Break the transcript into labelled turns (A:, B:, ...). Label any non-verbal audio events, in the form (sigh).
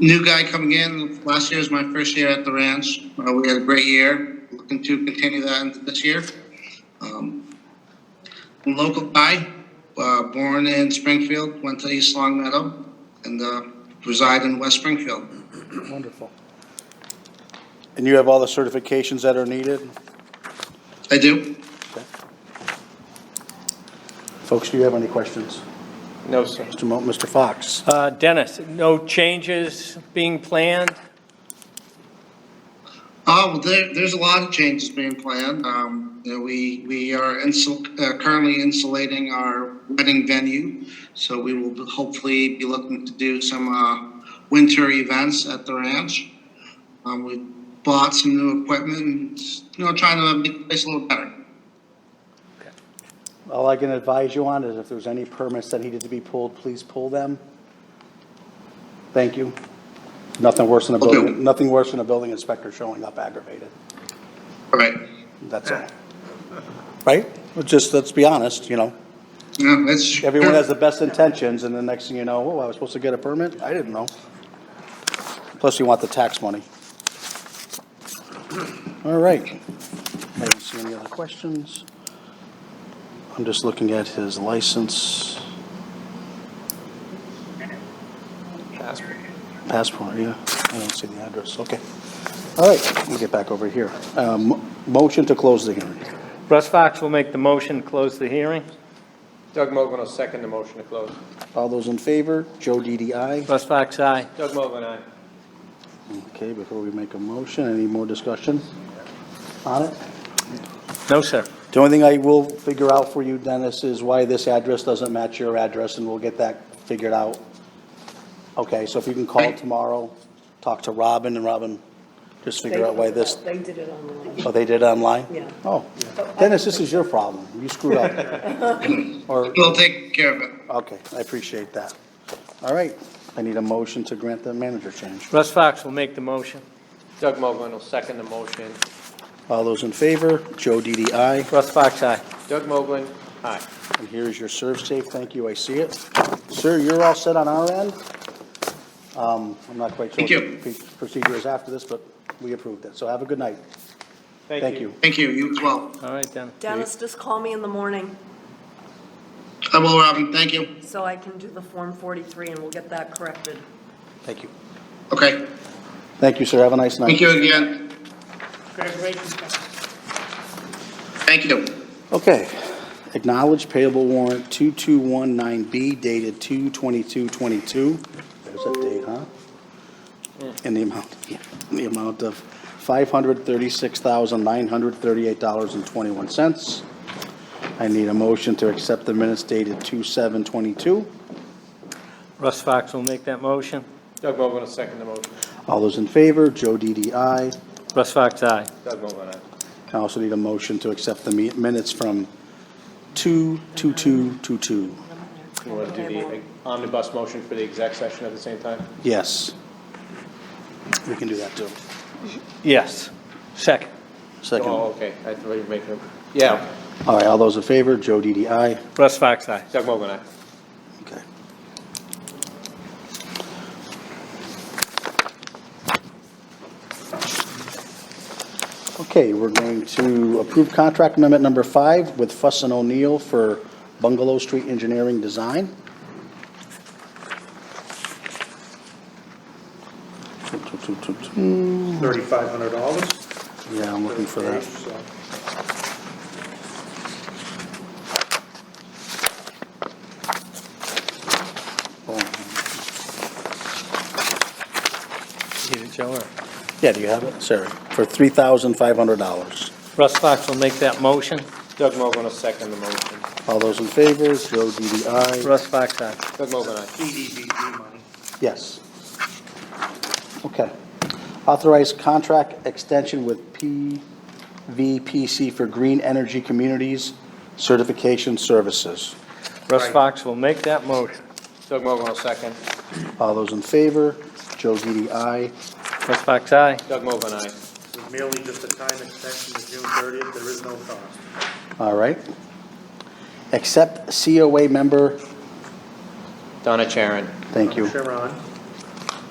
A: New guy coming in. Last year was my first year at the ranch. Uh, we had a great year. Looking to continue that into this year. Um, I'm a local guy, uh, born in Springfield, went to East Long Meadow, and uh, reside in West Springfield.
B: Wonderful. And you have all the certifications that are needed?
A: I do.
B: Folks, do you have any questions?
C: No, sir.
B: Mr. Mo, Mr. Fox?
C: Uh, Dennis, no changes being planned?
A: Oh, well, there, there's a lot of changes being planned. Um, you know, we, we are insul- uh, currently insulating our wedding venue. So we will hopefully be looking to do some, uh, winter events at the ranch. Um, we bought some new equipment and, you know, trying to make the place a little better.
B: All I can advise you on is if there's any permits that needed to be pulled, please pull them. Thank you. Nothing worse than a
A: Okay.
B: building, nothing worse than a building inspector showing up aggravated.
A: All right.
B: That's
C: Eh.
B: all. Right? Well, Just, let's be honest, you know?
A: Yeah, that's.
B: Everyone has the best intentions, and the next thing you know, oh, I was supposed to get a permit? I didn't know. Plus, you want the tax money. All right. I don't see any other questions. I'm just looking at his license, passport, yeah. I don't see the address, okay. All right, we'll get back over here. Um, Motion to close the hearing.
C: Russ Fox will make the motion, to close the hearing.
D: Doug Mogul will second the motion to close.
B: All those in favor? Joe DDI.
C: Russ Fox, aye.
D: Doug Mogul, aye.
B: Okay, before we make a motion, any more discussion on it?
C: No, sir.
B: The only thing I will figure out for you, Dennis, is why this address doesn't match your address, and we'll get that figured out. Okay, so if you can call tomorrow, talk to Robin, and Robin, just figure out why this,
E: They did it online.
B: oh, they did it online?
E: Yeah.
B: Oh, Dennis, this is your problem, you screwed up. (laughs) Or,
A: We'll take care of it.
B: okay, I appreciate that. All right, I need a motion to grant the manager change.
C: Russ Fox will make the motion.
D: Doug Mogul will second the motion.
B: All those in favor? Joe DDI.
C: Russ Fox, aye.
D: Doug Mogul, aye.
B: And here's your serve safe, thank you, I see it. Sir, you're all set on our end? Um, I'm not quite sure
A: Thank you.
B: what the procedure is after this, but we approved it, so have a good night. Thank you.
A: Thank you. You as well.
C: All right, Dennis.
E: Dennis, just call me in the morning
A: I will, Robin. Thank you.
E: so I can do the Form 43 and we'll get that corrected.
B: Thank you.
A: Okay.
B: Thank you, sir, have a nice night.
A: Thank you again.
E: Congratulations, Dennis.
A: Thank you.
B: Okay, acknowledge payable warrant 2219B dated 2/22/22. There's a date, huh? In the amount, yeah, in the amount of $536,938.21. I need a motion to accept the minutes dated 2/7/22.
C: Russ Fox will make that motion.
D: Doug Mogul will second the motion.
B: All those in favor, Joe DDI.
C: Russ Fox, aye.
D: Doug Mogul, aye.
B: I also need a motion to accept the mi- minutes from 2/22/22.
D: You want to do the omnibus motion for the exec session at the same time?
B: Yes. We can do that, too.
C: Yes. Second.
B: Second.
D: Oh,
B: All
D: okay, I thought you were making, yeah,
B: right, all those in favor, Joe DDI.
C: Russ Fox, aye.
D: Doug Mogul, aye.
B: Okay. Okay, we're going to approve contract amendment number five with Fuss and O'Neill for Bungalow Street Engineering Design.
F: thirty-five hundred dollars.
B: Yeah, I'm looking for that.
C: Give it, Joe.
B: Yeah, do you have it? Sorry, for $3,500.
C: Russ Fox will make that motion.
D: Doug Mogul will second the motion.
B: All those in favor, Joe DDI.
C: Russ Fox, aye.
D: Doug Mogul, aye.
F: EDBG money.
B: Yes. Okay. Authorize contract extension with PVPC for Green Energy Communities Certification Services.
C: Russ Fox will make that motion.
D: Doug Mogul will second.
B: All those in favor? Joe DDI.
C: Russ Fox, aye.
D: Doug Mogul, aye.
F: This is merely just a time extension to June thirtieth, there is no cost.
B: All right. Accept COA member,
D: Donna Charon.
B: thank you.
F: Sharon,